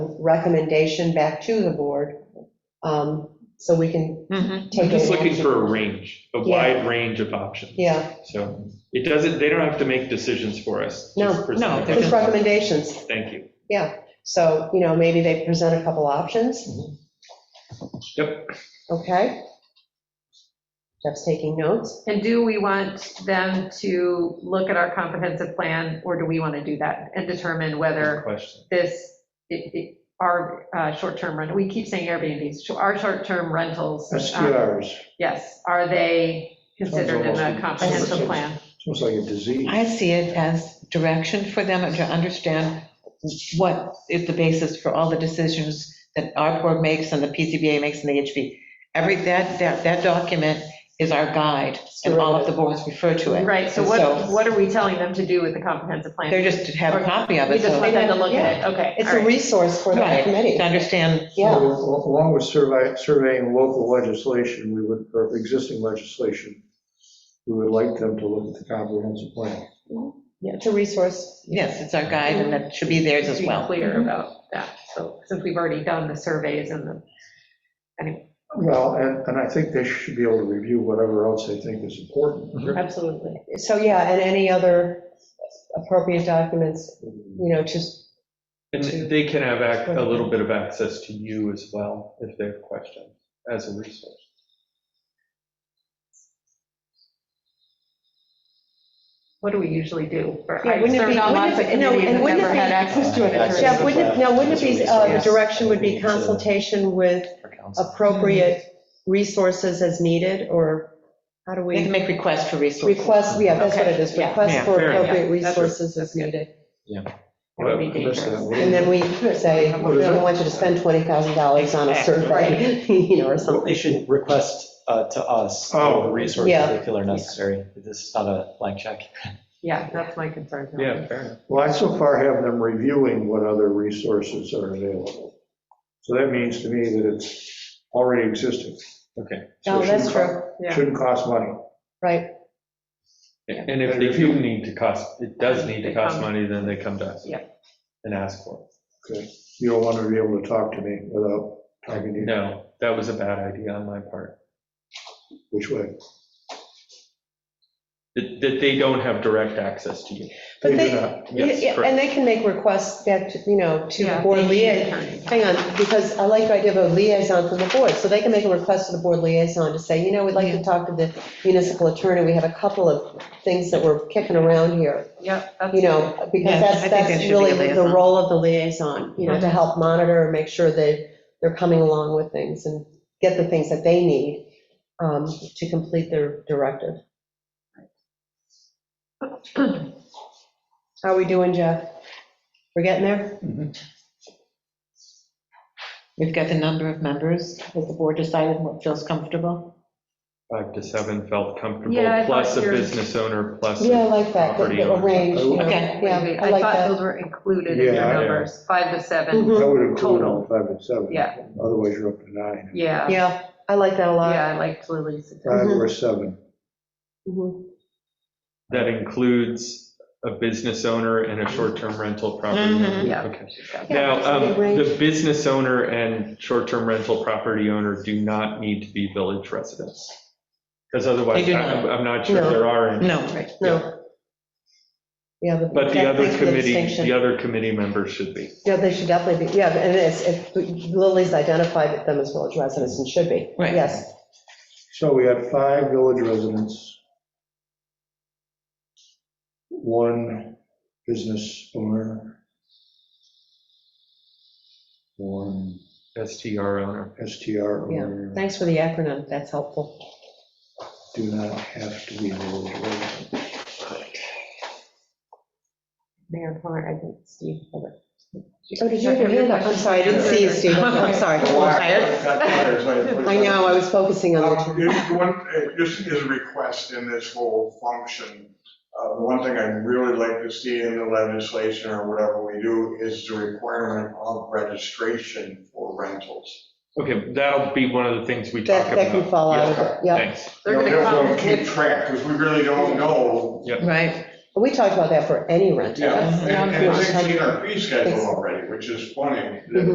recommendation back to the board, um, so we can Mhm. take. Just an looking action. for a range, a wide range of options. Yeah, So it doesn't, they don't have to make decisions for us. No. just present No, them. they're just recommendations. Thank you. So, you know, maybe they present a couple options. Mm-hmm. Yep. Okay. Jeff's taking notes. And do we want them to look at our comprehensive plan, or do we want to do that and determine Good whether question. this, it- it- our uh, short-term rental, we keep saying Airbnbs, so our short-term rentals. um, Uh, SQRs, Yes, are they considered in Sounds the almost- comprehensive plan? it's almost like a disease. I see it as direction for them to understand what is the basis for all the decisions that our board makes and the PCBA makes and the HB. Every, that, that, that document is our guide, and all of the boards refer to it. Right, so what, what are we telling them to do with the comprehensive plan? They're just to have a copy of We it, just so, want them to look at it, okay. It's all a right. resource for the Right. committee. to understand, Yeah, Along with survey- surveying local legislation, we would, or existing legislation, we would like them to look at the comprehensive plan. it's a resource. yes, it's our guide, and that should be theirs as Be well. Clear about that, so, since we've already done the surveys and the, Well, and, and I think they should be able to review whatever else they think is important. absolutely. So, yeah, and any other appropriate documents, you know, just, And they can have ac- a little bit of access to you as well if they have questions as a resource. What do we usually do? for- Yeah, I've wouldn't it served be- on wouldn't lots it of be- no, committees and and wouldn't never it be- had access to an Access attorney. to Jeff, wouldn't it, now, wouldn't it be, uh, the Yes. direction would be consultation with for council. appropriate Mm-hmm. resources as needed, or how do They can we? make requests for resources. Request, yeah, that's what it is, Okay, yeah. request Yeah, for fair enough. appropriate That's- resources as needed. That would be I missed that. dangerous. And then we say, we don't want you to spend $20,000 on a survey, you know, or Well, They something. should request uh, to us Oh. the resources Yeah. they feel are necessary. This is not a blank check. Yeah, that's my concern. Yeah, fair enough. Well, I so far have them reviewing what other resources are available. So that means to me that it's already existing. Okay. So Oh, it No, Oh, that's shouldn't true, co- Yeah. Shouldn't cost money. right. And if they do need to cost, it does need to cost money, then they come to us. Yeah. And ask for You don't want to be able to talk to me without talking to it. you. No, that was a bad idea on my part. Which way? That that they don't have direct access to you. But They they, do not. Yes, yeah, and correct. they can make requests back, to you know, to the Yeah, board they need an liaison. attorney. Hang on, because I like the idea of a liaison from the board, so they can make a request to the board liaison to say, you know, we'd like to talk to the municipal attorney, we have a couple of things that we're kicking around here, Yep, you that's, know, because Yeah, I that's, think that that's should be a really the- the liaison. role of the liaison, you know, to help monitor and make sure that they're coming along with things and get the things that they need um, to complete their directive. How we doing, Jeff? We're getting there? We've got the number of members, has the board decided what feels comfortable? Five to seven felt Yeah, I thought comfortable, plus a your- business owner, plus. a- Yeah, I like that, the- Property the owner. arrange, you know, Okay. yeah, I I like thought that. those were included in Yeah, your yeah. numbers, five to seven, Mhm. That would include Total. all five and seven. Yeah. Otherwise, you're up to nine. yeah. Yeah, I like that a lot. Yeah, I liked Lily's. suggestion. Five or seven. Mhm. That includes a business owner and a short-term rental property owner. Mhm. Yeah. Okay. Mm-hmm. Yeah, Now, um, it's a good range. the business owner and short-term rental property owner do not need to be village residents. Because otherwise, They do I'm not. I'm not sure No. there are any. No. No. Yeah. But the that- other thanks for the committee, distinction. the other committee members should be. Yeah, they should definitely be, yeah, and it's, if Lily's identified them as village residents and should be, Right. yes. So we have five village residents, one business owner, one STR owner. STR Yeah. owner, Thanks for the acronym, that's helpful. do not have to be village residents. Mayor Plummer, I think Steve. held it. Oh, did you have your hand up? I'm sorry, I didn't see you, Steve, I'm sorry. I know, I was focusing on Uh, the, you- you want- uh, This is a request in this whole function. Uh, The one thing I'd really like to see in the legislation or whatever we do is the requirement of registration for rentals. Okay, that'll be one of the things we talk that, that can about. fall out of it, yeah. Thanks. They're You know, gonna therefore, come. Keep track, because we really don't know. Right, We talked about that for any rental. Yeah, That's and- And non-fuel. it's in our fee schedule already, which is funny. Mhm.